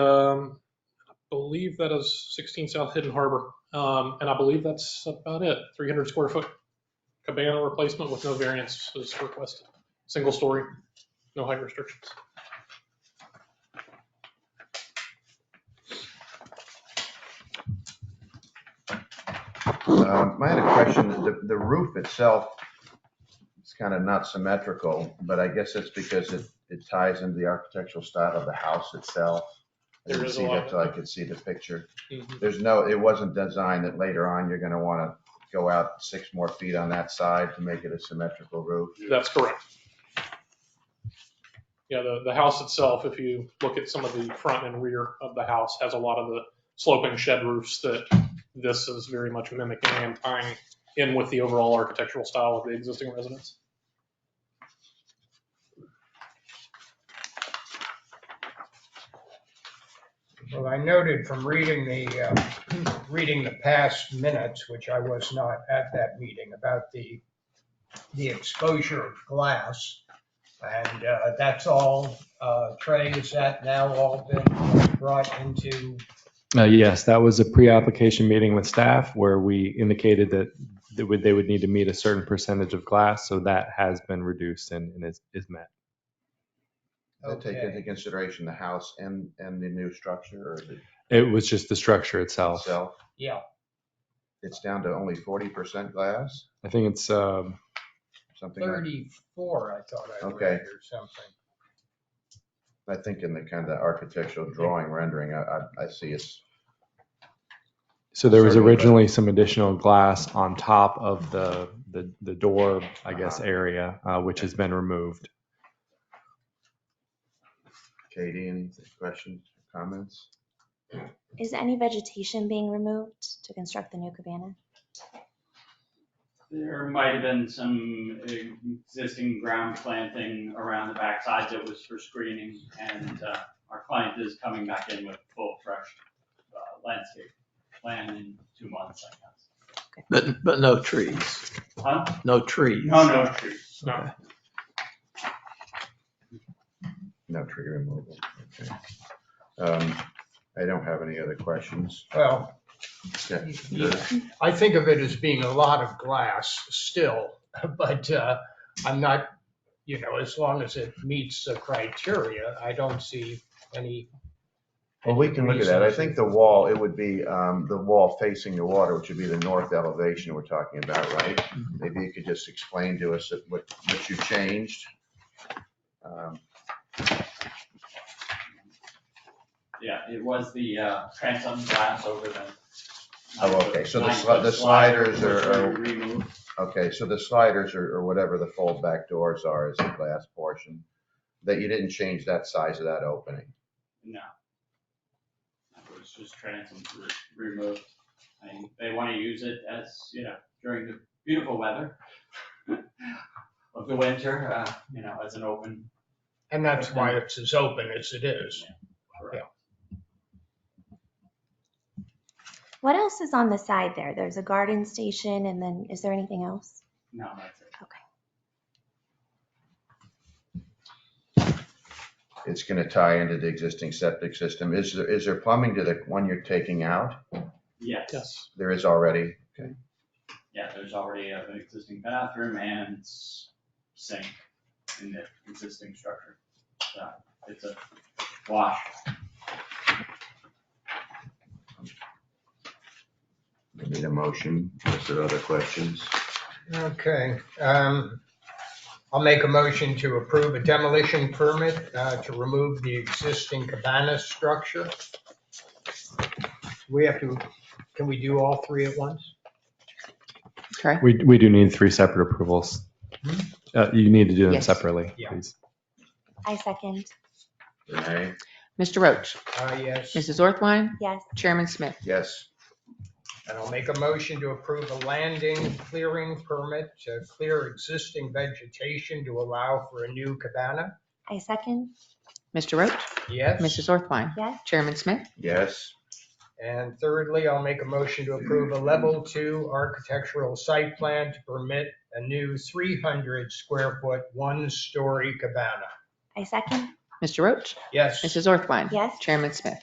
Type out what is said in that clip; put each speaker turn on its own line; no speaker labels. Um, believe that is 16 South Hidden Harbor. Um, And I believe that's about it. 300 square foot cabana replacement with no variance is requested. Single story, no height restrictions.
Um, I had a question, the, the roof itself is kind of not symmetrical, but I guess that's because it, it ties into the architectural style of the house itself. I
There
didn't
is a
see
lot
that
of-
till I could see the picture.
Mhm.
There's no, it wasn't designed that later on, you're gonna wanna go out six more feet on that side to make it a symmetrical roof.
That's correct. Yeah, the, the house itself, if you look at some of the front and rear of the house, has a lot of the sloping shed roofs that this is very much mimicking and tying in with the overall architectural style of the existing residence.
Well, I noted from reading the, uh, reading the past minutes, which I was not at that meeting, about the, the exposure of glass. And uh, that's all, uh, Trey, is that now all been brought into,
Uh, Yes, that was a pre-application meeting with staff where we indicated that they would, they would need to meet a certain percentage of glass, so that has been reduced and and is, is met.
That take into
Okay.
consideration the house and, and the new structure or the
It was just the structure itself.
itself.
yeah,
It's down to only forty percent glass,
I think it's, um,
something like,
34, I thought I
Okay.
read or something.
I think in the kind of architectural drawing rendering, I, I, I see it's
so there was
Sort of, but-
originally some additional glass on top of the, the, the door, I guess, area, uh, which has been removed.
Katie, any questions, comments?
Is any vegetation being removed to construct the new cabana?
There might have been some existing ground planting around the backside that was for screening, and uh, our client is coming back in with full fresh uh, landscape plan in two months, I guess.
But, but no trees,
Huh?
no trees.
No, no trees.
No.
No tree removal, okay. Um, I don't have any other questions.
Well,
Yeah,
Yeah. I think of it as being a lot of glass still, but uh, I'm not, you know, as long as it meets the criteria, I don't see any.
Well, we can look at that. I think the wall, it would be, um, the wall facing the water, which would be the north elevation we're talking about, right? Maybe you could just explain to us that what, what you changed. Um,
Yeah, it was the uh, transom glass over the.
Oh, okay, so the
nine-foot
sli- the sliders
slider was
are- are-
Removed.
Okay, so the sliders or, or whatever the fold back doors are is the glass portion, that you didn't change that size of that opening.
No. It was just transom re- removed. I mean, they want to use it as, you know, during the beautiful weather of the winter, uh, you know, as an open.
And that's why it's as open as it is.
What else is on the side there? There's a garden station and then is there anything else?
No, that's it.
it's gonna tie into the existing septic system. Is there, is there plumbing to the one you're taking out?
Yes,
Yes.
There is already. Okay.
yeah, there's already an existing bathroom and s- sink in the existing structure. So it's a wash.
I need a motion. Is there other questions?
Okay, um, I'll make a motion to approve a demolition permit uh, to remove the existing cabana structure. We have to, can we do all three at once?
Okay.
We, we do need three separate approvals. Uh, you need to do them
Yes.
separately,
Yeah.
please.
I second.
Renee?
Mr. Roach,
Uh, Yes.
Mrs. Orthwine,
Yes.
Chairman Smith.
Yes.
And I'll make a motion to approve a landing clearing permit to clear existing vegetation to allow for a new cabana.
I second.
Mr. Roach,
Yes.
Mrs. Orthwine,
Yes.
Chairman Smith.
Yes.
And thirdly, I'll make a motion to approve a level two architectural site plan to permit a new 300 square foot, one-story cabana.
I second.
Mr. Roach,
Yes.
Mrs. Orthwine.
Yes.
Chairman Smith.